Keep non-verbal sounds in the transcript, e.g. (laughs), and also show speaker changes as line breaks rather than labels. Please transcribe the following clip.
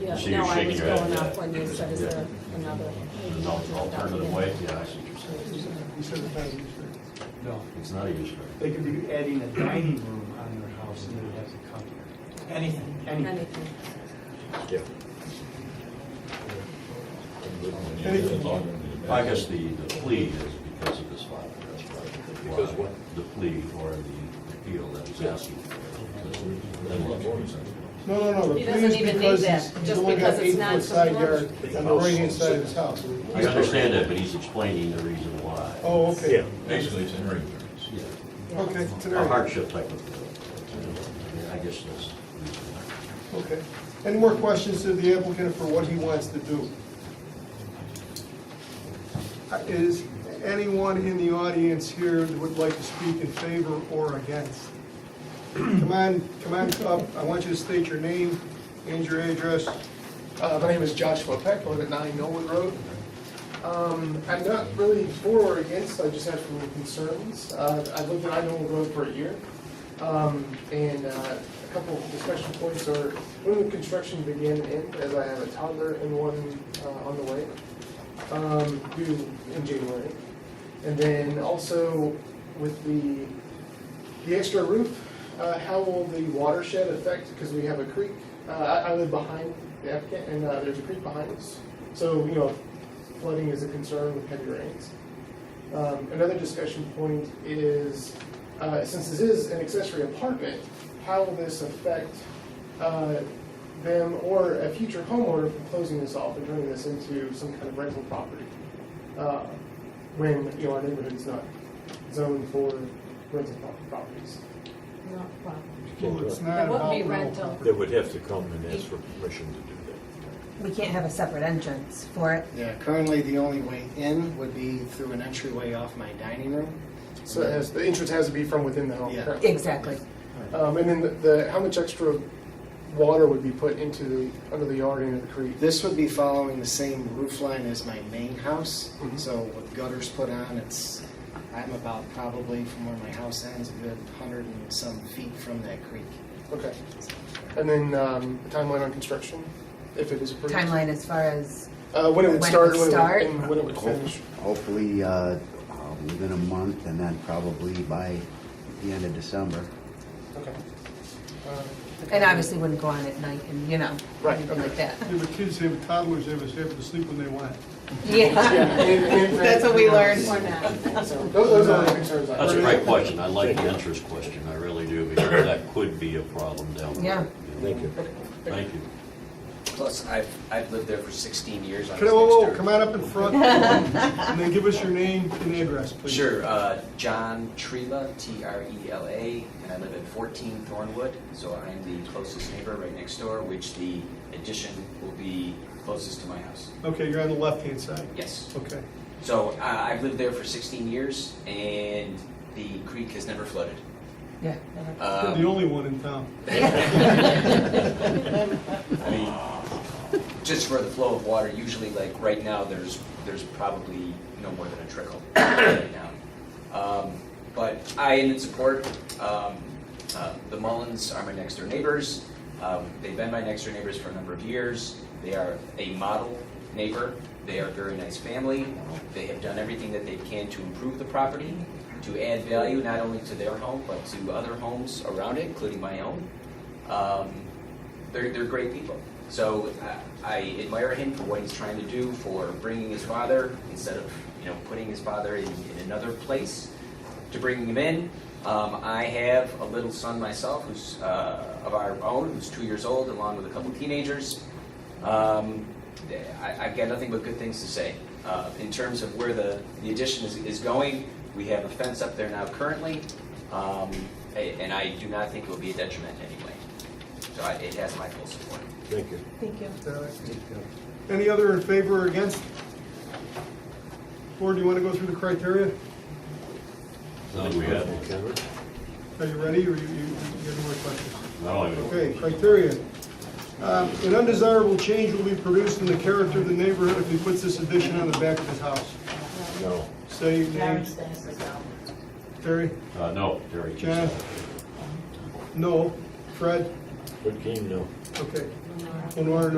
Yeah,
So you're
no, I
shaking
was
your head,
going
yeah.
off when you said, is
Yeah.
there another?
There's no alternative way, yeah, I see what you're saying.
You said it's not a use variance.
No,
It's not a use variance.
they could be adding a dining room on their house and they'd have to come. Anything, anything.
Anything.
Yeah.
I guess the, the plea is because of this file, that's right.
Because what?
The plea or the appeal that was asking for.
No, no, no, the
He
plea
doesn't
is
even need
because
that,
he's
just
he's only got
because it's
eight foot side yard
non-conforming.
on the right hand side of his house.
I understand that, but he's explaining the reason why.
Oh, okay,
Basically, it's an area variance.
Yeah.
okay, it's an
A
area,
hardship type of deal. I guess that's.
okay. Any more questions to the applicant for what he wants to do? Uh, Is anyone in the audience here that would like to speak in favor or against? Come on, come on up, I want you to state your name and your address.
Uh, My name is Joshua Peck, I live at 9 Millwood Road. Um, I'm not really for or against, I just have some concerns. Uh, I've lived at 9 Millwood Road for a year, Um, and uh, a couple of discussion points are, when the construction began and end, as I have a toddler and one uh, on the way, um, due in January. And then also with the the extra roof, uh, how will the watershed affect, because we have a creek, uh, I, I live behind the applicant, and, uh, there's a creek behind us. So, you know, flooding is a concern with heavy rains. Um, another discussion point is, uh, since this is an accessory apartment, how will this affect, uh, them or a future homeowner from closing this off and turning this into some kind of rental property? Uh, when, you know, our neighborhood's not zoned for rental pro- properties.
No problem.
Well, it's not
It wouldn't be
about-
rental.
They would have to come and ask for permission to do that.
We can't have a separate entrance for it.
Yeah, currently the only way in would be through an entryway off my dining room.
So it has, the entrance has to be from within the home.
Yeah.
correct?
Exactly.
Um, and then the, the, how much extra water would be put into the, under the yard into the creek?
This would be following the same roof line as my main house,
Mhm.
so with gutters put on, it's, I'm about probably from where my house ends, a good hundred and some feet from that creek.
Okay. And then, um, the timeline on construction, if it is approved?
Timeline as far as,
Uh, when it
When it
would start,
would
when it
start?
would, and when it would finish.
Hopefully, uh, uh, within a month, and then probably by the end of December.
Okay.
and obviously wouldn't go on at night and, you know,
Right,
anything like that.
They have kids, they have toddlers, they have, they have to sleep when they want.
(laughs) Yeah. That's what we learned.
Or not.
So those, those are the concerns I
That's a great question. I like the interest question. I really do, because that could be a problem down the road.
Yeah.
Thank you.
Thank you.
Plus, I've, I've lived there for 16 years. I
Can I,
was
whoa,
next
whoa,
door.
come on up in front, and then give us your name and address, please.
Sure, uh, John Trela, T-R-E-L-A, and I live at 14 Thornwood, so I'm the closest neighbor right next door, which the addition will be closest to my house.
Okay, you're on the left-hand side.
Yes.
Okay.
So uh, I've lived there for 16 years, and the creek has never flooded.
Yeah. never-
You're
Um,
the only one in
(laughs)
town.
I mean, just for the flow of water, usually like right now, there's, there's probably no more than a trickle right now. Um, But I am in support. Um, uh, The Mullins are my next door neighbors. Um, They've been my next door neighbors for a number of years. They are a model neighbor. They are a very nice family. They have done everything that they can to improve the property, to add value not only to their home, but to other homes around it, including my own. Um, they're, they're great people. So uh, I admire him for what he's trying to do, for bringing his father, instead of, you know, putting his father in, in another place, to bringing him in. Um, I have a little son myself who's uh, of our own, who's two years old, along with a couple teenagers. Um, I, I've got nothing but good things to say. Uh, in terms of where the, the addition is, is going, we have a fence up there now currently, um, a- and I do not think it will be a detriment anyway. So I- it has my full support.
Thank you.
Thank you.
Uh, Any other in favor or against? Board, do you want to go through the criteria?
Now, do Oh, we have,
Cameron?
Are you ready, or you, you you have more questions?
not only
Okay, criteria. Um, An undesirable change will be produced in the character of the neighborhood if he puts this addition on the back of his house.
No.
Say your name,
Larry stays as well.
Terry?
Uh, no, Terry.
John? No. Fred?
Good game, no.
Okay. Lenore,